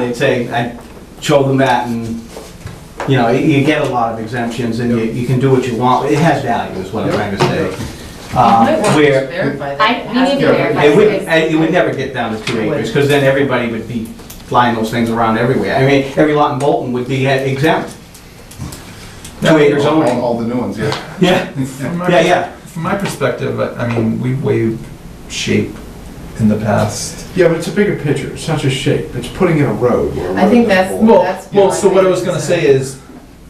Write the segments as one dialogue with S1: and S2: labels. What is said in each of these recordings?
S1: And they'd say, I show them that and, you know, you you get a lot of exemptions and you, you can do what you want. It has value is what I'm trying to say. Uh,
S2: Might want to
S1: where-
S2: verify
S3: I-
S2: that.
S3: we need to
S2: Ask-
S3: verify.
S1: It would, uh, it would never get down to two acres, because then everybody would be flying those things around everywhere. I mean, every lot in Bolton would be uh, exempt. Two acres
S4: All-
S1: only.
S4: All the new ones, yeah.
S1: Yeah,
S5: From my,
S1: yeah, yeah.
S5: From my perspective, I I mean, we've waived shape in the past.
S4: Yeah, but it's a bigger picture, it's not just shape, it's putting in a road where a
S2: I think
S4: road
S2: that's-
S4: doesn't belong.
S5: Well,
S2: That's
S5: well.
S2: my
S5: So what I was gonna
S2: concern.
S5: say is,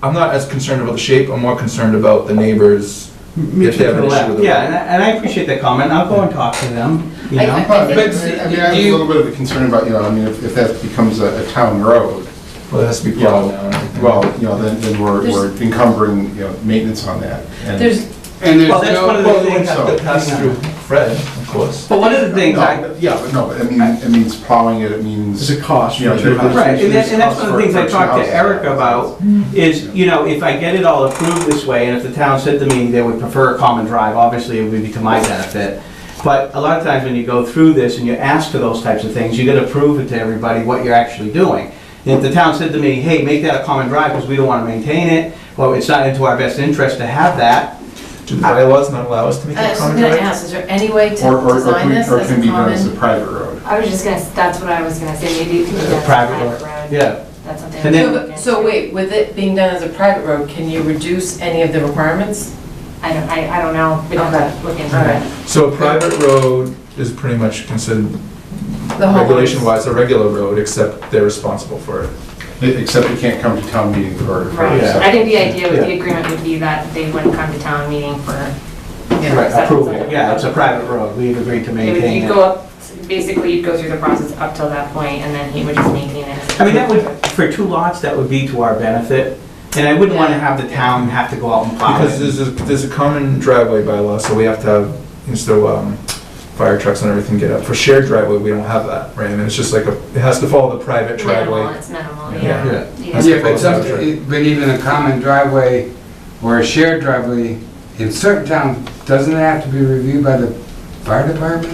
S5: I'm not as concerned about the shape. I'm more concerned about the neighbors.
S4: Me
S5: if they have an issue with the
S1: Yeah, and I- and I appreciate that comment. I'll go and talk to them, you
S2: I-
S1: know?
S4: But,
S2: think-
S4: but, I mean, I have a little bit of a concern about, you know, I mean, if, if that becomes a, a town road,
S5: Well, it has to be
S4: Yeah.
S5: plowed now. and everything.
S4: well, you know, then, then we're,
S2: There's-
S4: we're encumbering, you know, maintenance on that. And-
S2: There's, uh,
S4: And there's
S1: Well, that's
S4: no-
S1: one of the
S4: well,
S5: Well, they would
S1: things
S5: have to pass
S1: Hang
S5: through
S1: on.
S5: Fred, of course.
S1: But one of the things I,
S4: No, Yeah, but no, but I mean, it means plowing it, it means.
S6: It's a cost.
S4: Yeah,
S6: Richard.
S4: they're not-
S1: Right, and that's, and that's
S4: Cost
S1: one of the
S4: for-
S1: things I
S4: for
S1: talked to
S4: houses.
S1: Eric about, is, you know, if I get it all approved this way, and if the town said to me they would prefer a common drive, obviously it would be to my benefit. But a lot of times when you go through this and you're asked for those types of things, you gotta prove it to everybody what you're actually doing. And if the town said to me, hey, make that a common drive, because we don't wanna maintain it, or it's not into our best interest to have that,
S5: Do the bylaws not allow us to make
S2: Uh, I
S5: a
S2: was just
S5: comment?
S2: gonna ask, is there any way to
S4: Or, or, or
S2: design
S4: can,
S2: this
S4: or
S2: as
S4: can
S2: a
S4: be done as a
S2: common?
S4: private road.
S3: I was just gonna, that's what I was gonna say, maybe you can do that as a
S1: private road.
S3: private road.
S1: yeah.
S3: That's something.
S1: And then-
S3: I
S2: So so wait, with it being done as a private road, can you reduce any of the requirements?
S3: I don't, I, I don't know, we don't have to look into
S2: Okay.
S3: it.
S5: So a private road is pretty much considered
S2: The whole-
S5: regulation-wise a regular road, except they're responsible for it.
S4: E- Except it can't come to town meeting for. for-
S3: Right,
S1: Yeah.
S3: I think the idea with the
S1: Yeah.
S3: agreement would be that they wouldn't come to town meeting for,
S2: Yeah.
S1: Right, approval, yeah, it's a private road, we've agreed to
S3: it would-
S1: maintain
S3: you'd
S1: it.
S3: go up, basically you'd go through the process up till that point and then he would just maintain it.
S1: I mean, that would, for two lots, that would be to our benefit, and I wouldn't wanna have the town have to go out and plow it.
S5: Because there's a, there's a common driveway bylaw, so we have to have, and so, um, fire trucks and everything get up. For shared driveway, we don't have that, right? And it's just like a, it has to follow the private
S3: Minimal,
S5: driveway.
S3: it's minimal,
S5: Yeah.
S3: yeah.
S5: That's
S7: Yeah,
S5: the
S7: but some,
S5: proposal.
S7: it- but even a common driveway or a shared driveway, in certain towns, doesn't it have to be reviewed by the fire department?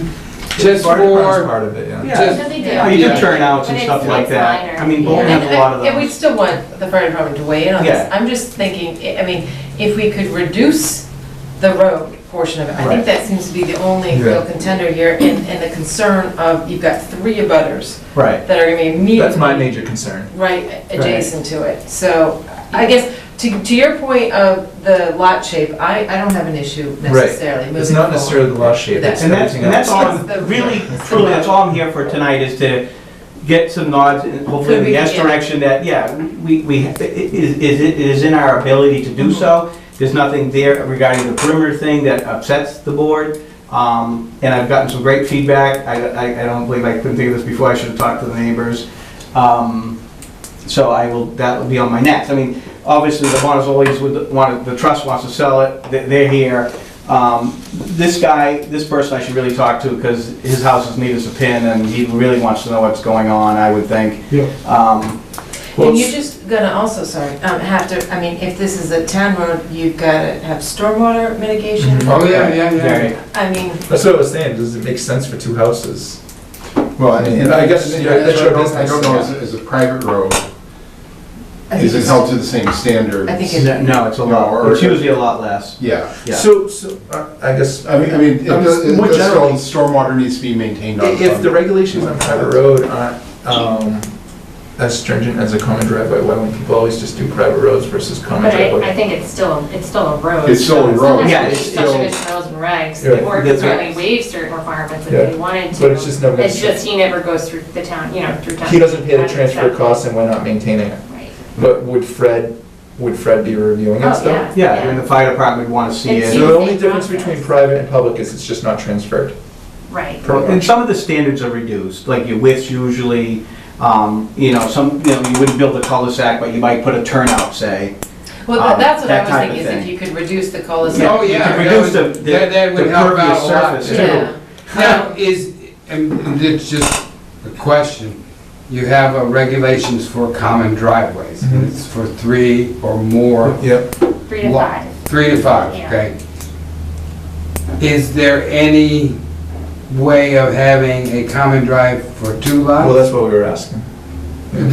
S7: Just
S5: Fire department's
S7: for,
S5: part of it, yeah.
S1: Yeah.
S7: just,
S3: No, they do.
S1: Oh, You do
S7: Yeah.
S1: turnouts and
S3: But
S1: stuff
S3: it's-
S1: like
S3: it's
S1: that.
S3: minor.
S1: I mean, Bolton
S3: Yeah.
S1: has a lot of
S2: And and we'd
S1: those.
S2: still want the fire department to weigh in on
S1: Yeah.
S2: this. I'm just thinking, I I mean, if we could reduce the road portion of it, I
S1: Right.
S2: think that seems to be the only
S5: Yeah.
S2: real contender here, and, and the concern of, you've got three abutters
S1: Right.
S2: that are gonna be immediately.
S5: That's my major concern.
S2: right adjacent to it. So I guess, to, to your point of the lot shape, I, I don't have an issue necessarily moving
S5: It's not necessarily the lot shape, it's
S1: And that's,
S5: everything
S1: and that's
S5: else.
S1: all,
S2: It's the-
S1: I'm- really, truly, that's all I'm here for tonight is to get some nods and hopefully
S2: So
S1: in
S2: we
S1: the yes
S2: can-
S1: direction that, yeah, we, we, it is, is it is in our ability to do so. There's nothing there regarding the perimeter thing that upsets the board. Um, and I've gotten some great feedback. I, I, I don't believe I couldn't think of this before. I should have talked to the neighbors. Um, so I will, that will be on my next. I mean, obviously, the Montezoli's would want, the trust wants to sell it. They- They're here. Um, this guy, this person I should really talk to because his house is neat as a pin and he really wants to know what's going on, I would think.
S6: Yeah.
S1: Um,
S5: Well,
S2: And you're
S5: it's-
S2: just gonna also, sorry, um, have to, I mean, if this is a town road, you've gotta have stormwater mitigation.
S5: Mhm.
S7: oh, yeah, yeah, yeah.
S1: very-
S2: I mean,
S5: That's what I was saying, does it make sense for two houses?
S4: Well, and- and I guess,
S5: Yeah,
S4: you know,
S5: that's
S4: that's
S5: your
S4: what I don't- I don't
S5: business,
S4: know,
S5: yeah.
S4: as, a- as a private road,
S2: I think
S4: is it
S2: it's-
S4: held to the same standards?
S2: I think it-
S1: No, it's a lot, it's usually a lot less,
S4: Yeah,
S1: yeah.
S5: So, so, uh, I guess,
S4: I mean, I mean, it
S5: I'm
S4: does,
S5: just-
S4: it
S5: more
S4: does
S5: generally-
S4: still, stormwater needs to be maintained on.
S5: If
S4: on-
S5: the regulations on private road aren't um, as stringent as a common driveway, why wouldn't people always just do private roads versus common
S3: But I, I
S5: driveway?
S3: think it's still, it's still a road.
S4: It's still a road.
S1: Yeah,
S3: Yeah,
S1: it's
S3: it's
S1: still-
S3: rules and regs,
S5: Yeah.
S3: the board could
S1: That's right.
S3: certainly waive certain requirements if
S5: Yeah.
S3: they wanted to.
S5: But it's just never gonna
S3: It's just he never goes through the town, you know, through town.
S5: He doesn't pay the transfer
S3: Right.
S5: costs and we're not maintaining it.
S3: Right.
S5: But would Fred, would Fred be reviewing it
S3: Oh,
S5: still?
S3: yeah.
S1: Yeah, and the fire department would want to see
S3: It's
S5: So
S1: it.
S5: the
S3: Same
S5: only difference
S3: process.
S5: between private and public is it's just not transferred.
S3: Right.
S1: And some of the standards are reduced, like your widths usually, um, you know, some, you know, you wouldn't build a cul-de-sac, but you might put a turnout, say.
S2: well,
S1: Um,
S2: tha- that's what
S1: that
S2: I was
S1: type of
S2: thinking, is if
S1: thing.
S2: you could reduce the cul-de-sac.
S7: Oh,
S1: You
S7: yeah.
S1: could
S7: that
S1: reduce
S7: would-
S1: the- the-
S7: that- that would
S1: the
S7: help out
S1: pervious
S7: a lot,
S1: surface,
S7: yeah.
S1: too.
S2: Yeah.
S7: Now, is, and it's just a question, you have uh, regulations for common driveways,
S5: Mm-hmm.
S7: and it's for three or more
S5: Yep.
S3: Three to
S7: Lot.
S3: five.
S7: Three to five,
S3: Yeah.
S7: okay. Is there any way of having a common drive for two
S5: Well,
S7: lots?
S5: that's what we were asking.